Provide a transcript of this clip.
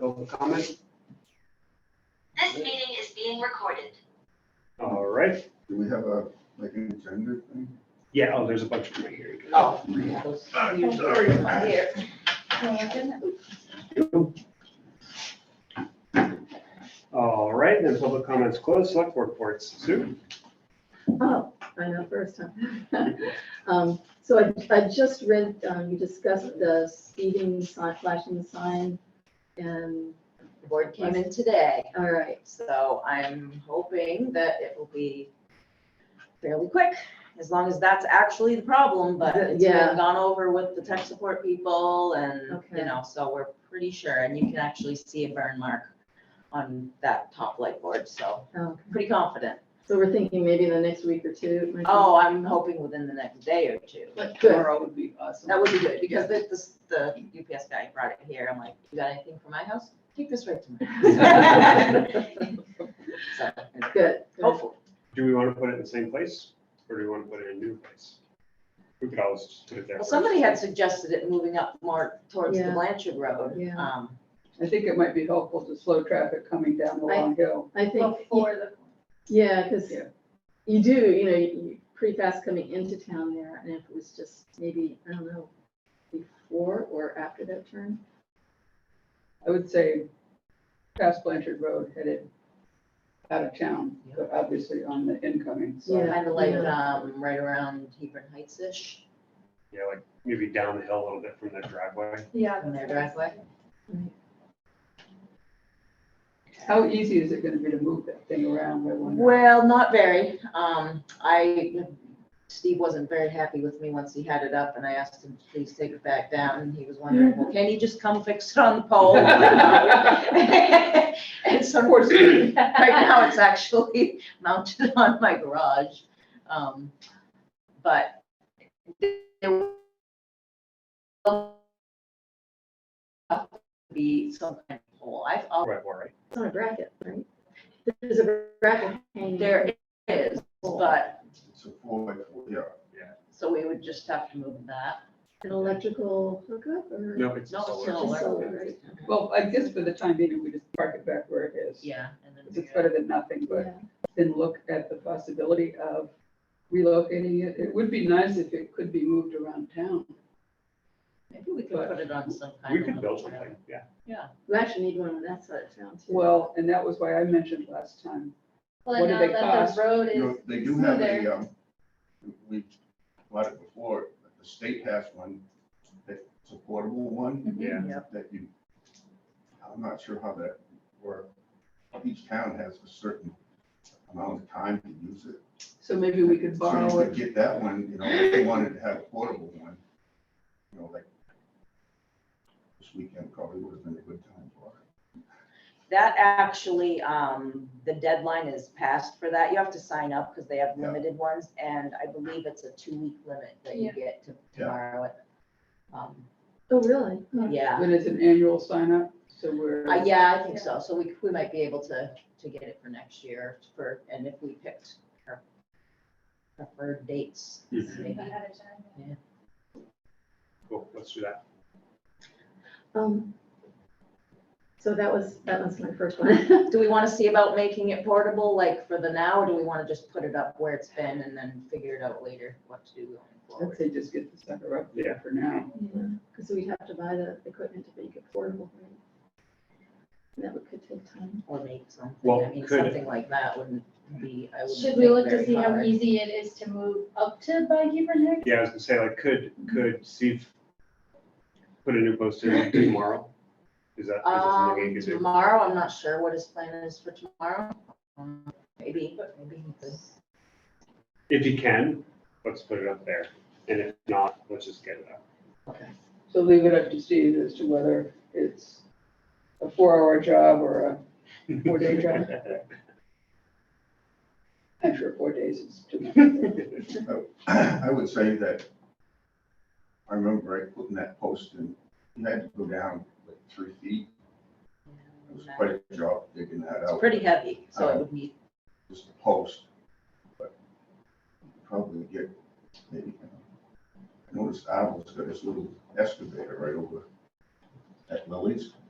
Public comment? This meeting is being recorded. All right. Do we have a, like an agenda thing? Yeah, oh, there's a bunch of them right here. Oh. I'm sorry. Here. All right, then public comments closed. Select board reports. Sue? Oh, I know, first time. Um, So I, I just read, um, you discussed the speeding sign, flashing sign, and, The board came in today, all right, so I'm hoping that it will be fairly quick, as long as that's actually the problem, but it's Yeah. been gone over with the tech support people and, Okay. you know, so we're pretty sure, and you can actually see a burn mark on that top light board, so oh, pretty confident. so we're thinking maybe in the next week or two. it might be- Oh, I'm hoping within the next day or two. But Good. tomorrow would be awesome. That would be good, because the, this- the UPS guy brought it here, I'm like, you got anything for my house? Take this right to my house. So, Good. good. Hopefully. Do we want to put it in the same place or do we want to put it in a new place? We could always just put it there. Well, first. somebody had suggested it moving up more towards the Yeah. Blanchard Road. Yeah. um, I think it might be helpful to slow traffic coming down the I- long hill. I think, Before the. yeah, because Yeah. you do, you know, you- you, pretty fast coming into town there, and if it was just maybe, I don't know, before or after that turn? I would say past Blanchard Road headed out of town, but obviously on the incoming, so. Yeah. Kind of like, um, right around Hebron Heights-ish Yeah, like maybe down the hill a little bit from the driveway. Yeah. from their driveway. How easy is it gonna be to move that thing around? I wonder. Well, not very. Um, I, Steve wasn't very happy with me once he had it up and I asked him, please take it back down. And he was wondering, well, can you just come fix it on the pole? And so, of course, right now it's actually mounted on my garage. Um, but there will be some kind of pole. I've always Right, all right. It's on a bracket, right? There's a bracket hanging. There is, but, It's a four by four, yeah. so we would just have to move that. An electrical hookup or? No, it's No, solar. solar. Just solar, right? Well, I guess for the time being, we just park it back where it is. Yeah. and then 'Cause It's figure better out- than nothing, but Yeah. then look at the possibility of relocating it. It would be nice if it could be moved around town. Maybe we could put it on some kind of. We could build something, yeah. We actually need one on that side of town too. Well, and that was why I mentioned last time. Well, What do now they that cost? the road You know, is. They do so have they're- a, um, we bought it before, but the state has one, that's a portable one. Yeah. That you, I'm not sure how that works. Each town has a certain amount of time to use it. So maybe we could So borrow you could it. get that one, you know, if they wanted to have a portable one, you know, like this weekend probably would have been a good time for it. That actually, um, the deadline is passed for that. You have to sign up because they have Yeah. limited ones. And I believe it's a two-week limit that you Yeah. get to Yeah. tomorrow. it. Um, Oh, really? Huh. Yeah, But it's an annual sign up, so we're, Uh, yeah, I think so. So we, we might be able to, to get it for next year for, and if we picked our preferred dates, Mhm. Maybe maybe. ahead of time. Cool, let's do that. Um, so that was, that was my first one. Do we want to see about making it portable, like for the now, or do we want to just put it up where it's been and then figure it out later what to do going I'd forward? say just get the sucker up Yeah. there for now. Because we'd have to buy the equipment to make it portable. right? And that would could take time. Or make something, Well, I mean, could it- something like that wouldn't be, I would. Should we look to see how easy it is to move up to by Hebron Heights? Yeah, I was gonna say, like, could, could Steve put a new post in tomorrow? Is that, is that something Um, he could do? tomorrow, I'm not sure what his plan is for tomorrow. Um, Maybe, maybe he could. If he can, let's put it up there. And if not, let's just get it up. Okay. So leave it up to Steve as to whether it's a four hour job or a four day job. I'm sure four days is too much. I would say that I remember I putting that post in, you had to go down like three feet. It was quite a job digging that uh, It's out, pretty heavy, so it would need, just a post. But probably get maybe, you know, I noticed Abel's got his little excavator right over at Lily's.